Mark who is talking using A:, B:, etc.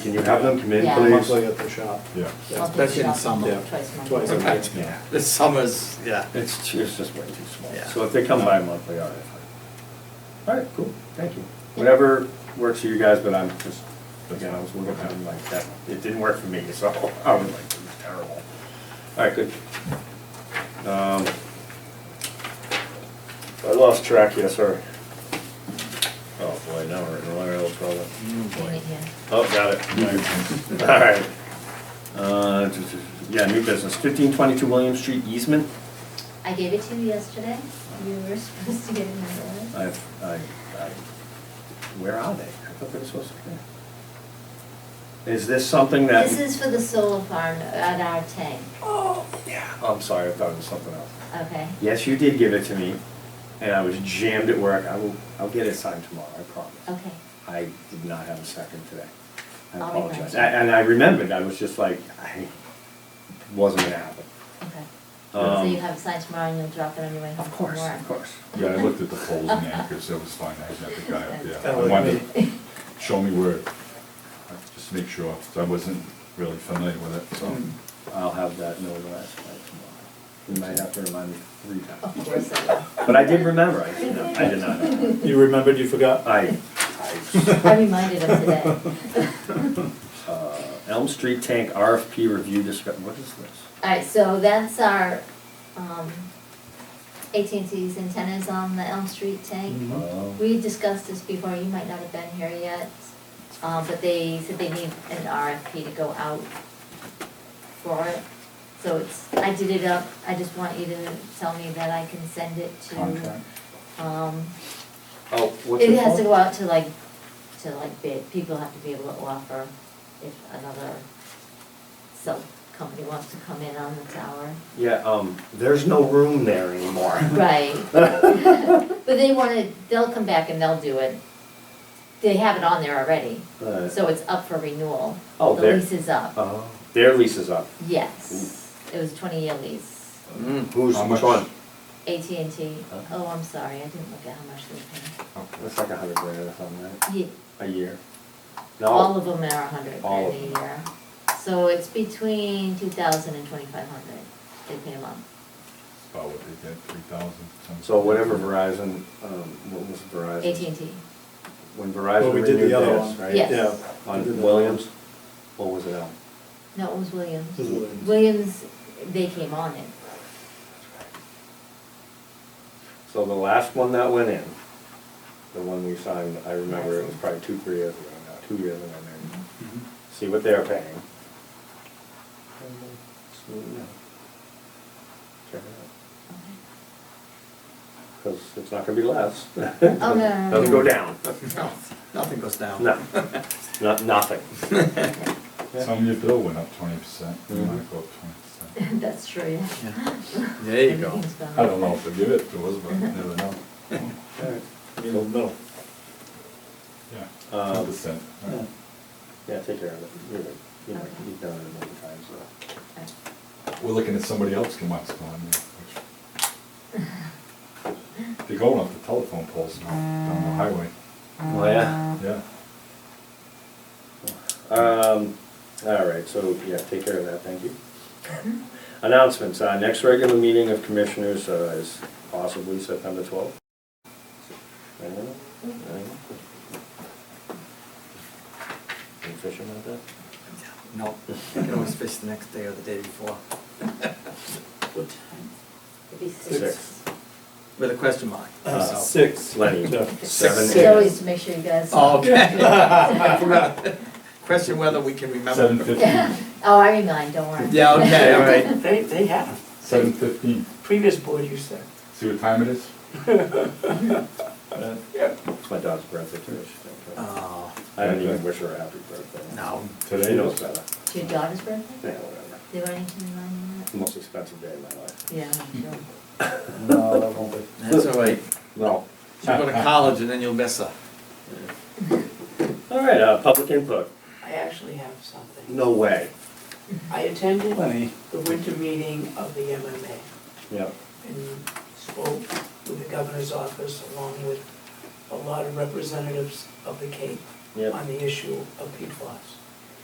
A: Can you have them come in,
B: Yeah.
A: please?
C: Monthly at the shop.
D: Yeah.
B: I'll do
E: That's in
B: shopping
E: summer.
B: Twice a month.
C: Twice a month.
E: Right.
D: Yeah.
E: The summers, yeah.
A: It's, it's just way too small.
E: Yeah.
A: So if they come by monthly, all right. fine. All right, cool, thank you. Whatever works for you guys, but I'm just, again, I was looking at it like that. It didn't work for me, so I was like, this is terrible. All right, good. Um, I lost track, yes, sir. Oh, boy, now we're in a real trouble.
B: Leave it here.
A: Oh, got it. All right. Uh, t- t- Yeah, new business, fifteen twenty-two William Street easement.
B: I gave it to you yesterday. You were supposed to get it in the letter.
A: I've, I, I, where are they? I thought they were supposed to be there. Is this something that?
B: This is for the solar farm at our tank,
A: Oh, yeah. I'm sorry, I thought it was something else.
B: okay?
A: Yes, you did give it to me, and I was jammed at work. I will, I'll get it signed tomorrow, I promise.
B: Okay,
A: I did not have a second today. I
B: I'll
A: apologize.
B: remind you.
A: A- And I remembered, I was just like, I, wasn't gonna happen.
B: okay. So
A: Um,
B: you have it signed tomorrow and you'll drop it on your way home
A: Of
B: from
A: course,
B: work?
A: of course.
D: Yeah, I looked at the poles and anchors, that was fine, I had the guy up there.
C: That
D: I
C: was
D: wanted
C: me.
D: to show me where, uh, just to make sure, 'cause I wasn't really familiar with it, so.
A: I'll have that no less by tomorrow. You might have to remind me three times.
B: Of course I will.
A: But I did remember, I did not, I did not. know.
C: Mm. You remembered you forgot?
A: I, I,
B: I reminded him today.
A: uh, Elm Street Tank RFP review discuss, what is this?
B: Alright, so that's our, um, AT&T's antennas on the Elm Street tank.
A: Oh,
B: We discussed this before, you might not have been here yet, uh, but they said they need an RFP to go out for it. So it's, I did it up, I just want you to tell me that I can send it to,
D: Contract.
B: um,
A: Oh, what's
B: it
A: it
B: has to go
A: called?
B: out to like, to like bid, people have to be able to offer if another cell company wants to come in on the tower.
A: Yeah, um, there's no room there anymore.
B: Right. But they wanna, they'll come back and they'll do it. They have it on there already,
A: Uh,
B: so it's up for renewal.
A: Oh,
B: The
A: there-
B: lease is up,
A: Oh, their lease is up.
B: yes. It was a twenty-year lease.
A: Mm, Who's,
D: How
A: which
D: much?
A: one?
B: AT&T,
A: Huh?
B: oh, I'm sorry, I didn't look at how much they
A: That's like a hundred grand or something, right?
B: paid. He-
A: A year?
B: All
A: No,
B: of them are a hundred
A: All
B: grand
A: of
B: a
A: them.
B: year. So it's between two thousand and twenty-five hundred they pay a month.
D: About what they get, three thousand something.
A: so whatever Verizon, um, what was Verizon?
B: AT&T,
A: When
C: Well,
A: Verizon
C: we did
A: renewed
C: the other
A: theirs,
C: one.
A: right?
B: Yes.
C: Yeah. We did
A: On
C: the-
A: Williams, or was it Elm?
B: no, it was Williams.
C: It was Williams.
B: Williams, they came on it.
A: So the last one that went in, the one we signed, I remember it was probably two, three years ago now, two years ago
B: Mm-hmm.
A: maybe.
E: Mm-hmm.
A: See what they're paying. And then smooth it out. Check it
B: Okay.
A: out, because it's not gonna be less.
B: Oh, no, no, no,
A: Doesn't go
B: no.
A: down,
E: No, nothing goes down.
A: no, not, nothing.
D: Some of your bill went up twenty percent, you
A: Mhm.
C: Mm-hmm.
D: might go up twenty percent.
B: That's true, yeah.
E: Yeah. There you go.
B: Everything's gone
D: I
B: up.
D: don't know if they'll give it to us, but you never know.
A: Alright.
C: In the middle.
D: Yeah,
C: Uh,
A: Um,
D: ten percent.
A: Yeah, take care of it, you're, right. you know, you've done it a million times, so.
D: We're looking at somebody else come up, so, I mean, which. They're going off the telephone poles now, down the highway,
A: Oh, yeah?
D: yeah.
A: Um, all right, so, yeah, take care of that, thank you. Announcements, uh, next regular meeting of commissioners uh, is possibly September twelfth. Anyone? Anyone? Any fishing out there?
E: No, you can always fish the next day or the day before,
B: It'd be
A: Six.
B: six.
E: with a question mark.
C: Uh,
E: so.
C: Six.
A: Lenny,
C: Jeff.
A: seven.
B: It's always to make sure you guys.
E: Oh, Okay. I forgot. Question whether we can remember.
D: Seven fifteen,
B: Oh, I remind, don't worry.
E: Yeah, okay, all right.
F: They, they have.
D: seven fifteen,
F: Previous board used to.
D: see what time it is?
C: Uh,
A: It's my daughter's birthday today. she don't care.
E: Oh,
A: I didn't even wish her a happy birthday.
E: no,
A: She
D: Today
A: knows
D: is,
A: better.
B: It's your daughter's birthday?
A: Yeah, whatever.
B: They want you to remind me
A: Most expensive day of my life.
B: that? Yeah, I'm sure.
C: No, that won't be.
E: that's all right.
A: No.
E: She'll go to college and then you'll miss her.
A: All right, uh, public input.
F: I actually have something.
A: No way.
F: I attended
C: Lenny.
F: the winter meeting of the MMA
A: Yeah.
F: and spoke with the governor's office along with a lot of representatives of the Cape
A: Yep.
F: on the issue of peat loss.